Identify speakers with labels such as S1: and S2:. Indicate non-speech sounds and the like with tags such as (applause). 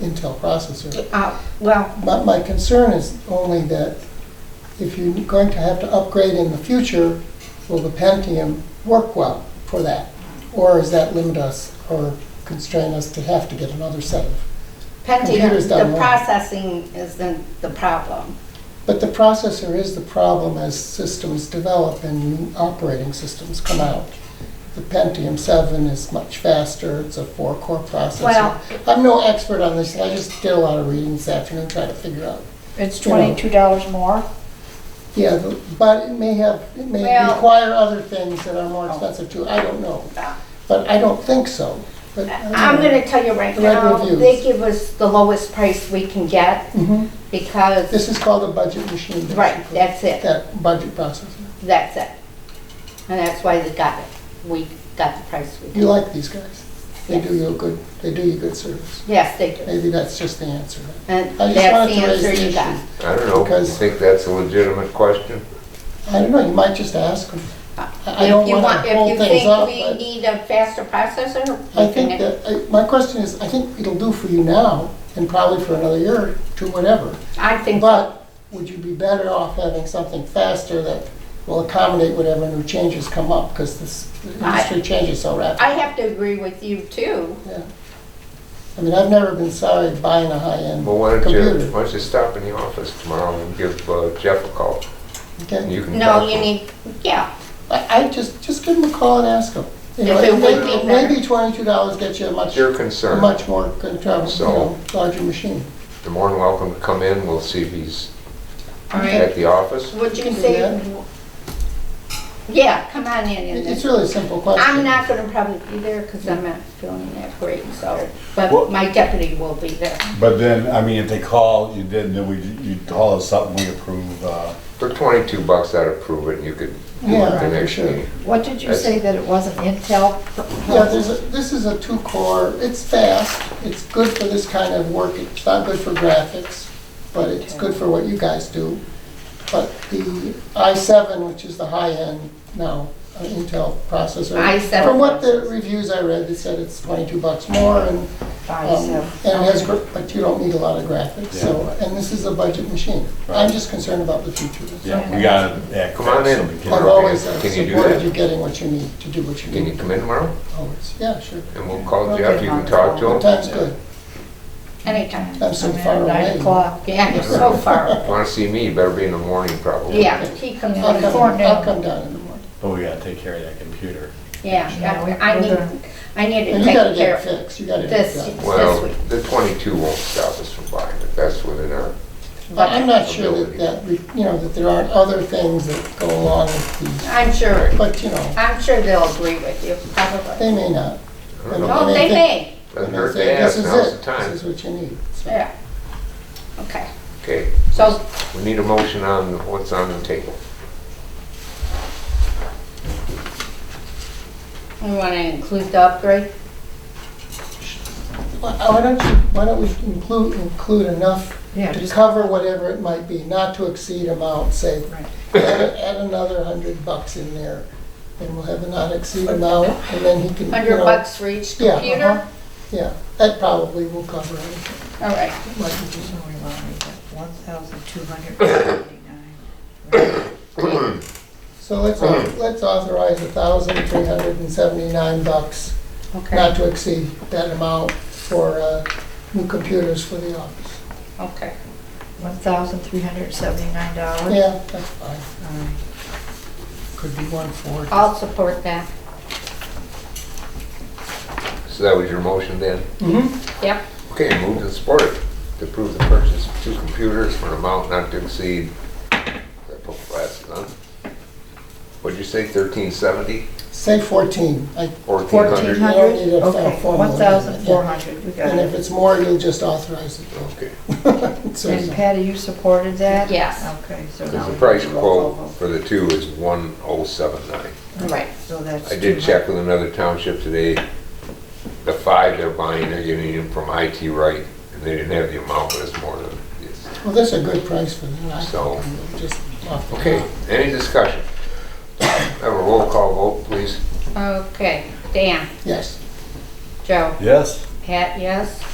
S1: Intel processor.
S2: Uh, Well,
S1: But my concern is only that if you're going to have to upgrade in the future, will the Pentium work well for that? Or does that limit us or constrain us to have to get another set of? Computer's
S2: Pentium,
S1: done well.
S2: the processing is the, the problem.
S1: But the processor is the problem as systems develop and new operating systems come out. The Pentium 7 is much faster, it's a four-core processor.
S2: Well-
S1: I'm no expert on this, I just did a lot of reading this afternoon trying to figure out
S3: It's
S1: You know.
S3: twenty-two dollars more?
S1: Yeah, the- but it may have, it may
S2: Well- Oh.
S1: require other things that are more expensive too, I don't know. But I don't think so. But I don't
S2: Uh, I'm
S1: know.
S2: gonna tell you right
S1: Red
S2: now,
S1: reviews.
S2: they give us the lowest price we can get
S1: Mhm.
S2: because,
S1: This is called a budget machine. basically.
S2: right, that's it,
S1: That budget processor.
S2: that's it. And that's why they got it. We got the price we
S1: You
S2: got.
S1: like these guys. They do you a good, they do you good service.
S2: Yes, they do.
S1: Maybe that's just the answer.
S2: And
S1: I just
S2: that's
S1: wanted
S2: the
S1: to raise
S2: answer
S1: the
S2: you got.
S1: issue.
S4: I don't know, you
S1: Because-
S4: think that's a legitimate question?
S1: I don't know, you might just ask them. I I
S2: If
S1: don't
S2: you
S1: want
S2: want,
S1: to hold
S2: if you
S1: things
S2: think
S1: up,
S2: we
S1: but
S2: need a faster processor,
S1: I
S2: we
S1: think
S2: can,
S1: that, I- my question is, I think it'll do for you now and probably for another year or two, whatever.
S2: I think so.
S1: But would you be better off having something faster that will accommodate whatever new changes come up? Because this the
S2: I-
S1: industry changes so rapidly.
S2: I have to agree with you too.
S1: Yeah. I mean, I've never been sorry buying a high-end
S4: Well, why don't you,
S1: computer.
S4: why don't you stop in the office tomorrow and give uh, Jeff a call? And
S1: Okay?
S4: you can talk
S2: No,
S4: to
S2: you
S4: him.
S2: need, yeah,
S1: I, I just, just give them a call and ask them. You know,
S2: If it would
S1: maybe-
S2: be better.
S1: Maybe twenty-two dollars gets you a much,
S4: Your
S1: a
S4: concern,
S1: much more, control- you
S4: So-
S1: know, larger machine.
S4: you're more than welcome to come in, we'll see if he's
S2: all right.
S4: at the office.
S2: Would you
S1: Can do
S2: say? Yeah, come on in
S1: It-
S2: and
S1: It's
S2: then.
S1: really a simple question.
S2: I'm not gonna probably be there because I'm not feeling that great, so, but
S5: Well-
S2: my deputy will be there.
S5: But then, I mean, if they call, you did, then we, you call us up and we approve, uh,
S4: For twenty-two bucks, I'd approve it, and you could do
S1: Yeah,
S4: it the
S1: for
S4: next
S1: sure.
S4: meeting.
S3: What did you
S4: That's-
S3: say, that it wasn't Intel? Oh,
S1: Yeah, there's a, this is a two-core, it's fast, it's good for this kind of work, it's not good for graphics, but it's good for what you guys do. But the i7, which is the high-end now uh, Intel processor.
S2: i7.
S1: From what the reviews I read, they said it's 22 bucks more and, um, and it has, gr- but you don't need a lot of graphics, so, and this is a budget machine. I'm just concerned about the future. that's all.
S5: yeah, we gotta act
S4: Come on
S5: fast so
S4: in.
S5: we
S1: I've
S4: Come on.
S5: can.
S1: always uh,
S4: Can you do
S1: supported
S4: that?
S1: you getting what you need to do what you
S4: Can you
S1: need,
S4: come in tomorrow,
S1: always, yeah, sure.
S4: and we'll call
S3: Okay,
S4: Jeff, you can
S3: fine.
S4: talk to
S1: What
S4: him?
S1: time's good?
S2: Anytime.
S1: I'm so
S3: I'm
S1: far
S3: at Nine
S1: away.
S3: o'clock.
S2: Yeah,
S1: (laughs)
S2: you're so far.
S4: If you wanna see me, you better be in the morning probably.
S2: Yeah, he comes
S1: I'll
S2: in.
S1: come,
S3: Before
S1: I'll
S3: noon.
S1: come down in the morning.
S5: But we gotta take care of that computer.
S3: Yeah, we-
S2: Yeah, I I
S3: we're
S2: need,
S3: gonna-
S2: I need to
S1: And you gotta
S2: take
S1: get
S2: care
S1: it
S2: of it.
S1: fixed, you gotta get
S2: This-
S1: it done.
S4: Well,
S2: This week.
S4: the twenty-two won't stop us from buying it, that's within our
S1: But I'm not sure that, that, we- you know, that there aren't other things that go along with these,
S2: I'm sure,
S1: but, you know,
S2: I'm sure they'll agree with you, probably.
S1: they may not.
S4: don't know.
S2: Oh, they may,
S1: They
S4: Doesn't
S1: may
S4: hurt
S1: say,
S4: to ask,
S1: This
S4: now's
S1: is
S4: the
S1: it, this is
S4: time.
S1: what you need. So,
S2: yeah. Okay,
S4: Okay,
S2: so
S4: we need a motion on what's on the table.
S2: we want to include the upgrade?
S1: Why uh, why don't you, why don't we include, include enough
S3: Yeah,
S1: to
S3: just-
S1: cover whatever it might be, not to exceed amount, say,
S3: Right.
S1: add, add another hundred bucks in there, and we'll have a not exceed
S3: (laughs)
S1: amount, and then he can, you know.
S2: 100 bucks for each
S1: Yeah, uh-huh.
S2: computer?
S1: Yeah, that probably will cover it.
S2: All right.
S3: One thousand two hundred seventy-nine.
S1: So let's, au-
S4: Mm-hmm.
S1: let's authorize a thousand three hundred and seventy-nine bucks, not
S2: Okay,
S1: to exceed that amount for, uh, new computers for the office.
S2: okay.
S3: One thousand three hundred seventy-nine dollars?
S1: Yeah, that's fine, could be one for.
S2: I'll support that.
S4: So that was your motion then?
S1: Mm-hmm,
S2: Yep.
S4: Okay, moved and supported to approve the purchase of two computers for an amount not to exceed, I put glasses on. What'd you say, thirteen seventy?
S1: say fourteen, I,
S4: Fourteen
S3: Fourteen
S4: hundred?
S3: hundred?
S1: You don't need a
S3: Okay,
S1: formal
S3: one thousand four
S1: amendment,
S3: hundred, we got
S1: and if
S3: it.
S1: it's more, you'll just authorize it.
S4: Okay,
S1: So-
S3: And Patty, you supported that?
S2: Yes.
S3: Okay, so now.
S4: because the
S3: we
S4: price
S3: do a roll call
S4: quote
S3: vote.
S4: for the two is one oh seven nine.
S2: Right.
S3: So that's.
S4: I did
S3: 200.
S4: check with another township today, the five they're buying, they're getting them from IT Right, and they didn't have the amount, but it's more than this.
S1: Well, that's a good price for them, I
S4: So-
S1: think, just off the.
S4: Okay, any discussion? Have a roll call vote, please.
S2: Okay, Dan,
S1: Yes,
S2: Joe,
S5: Yes,
S2: Pat, yes?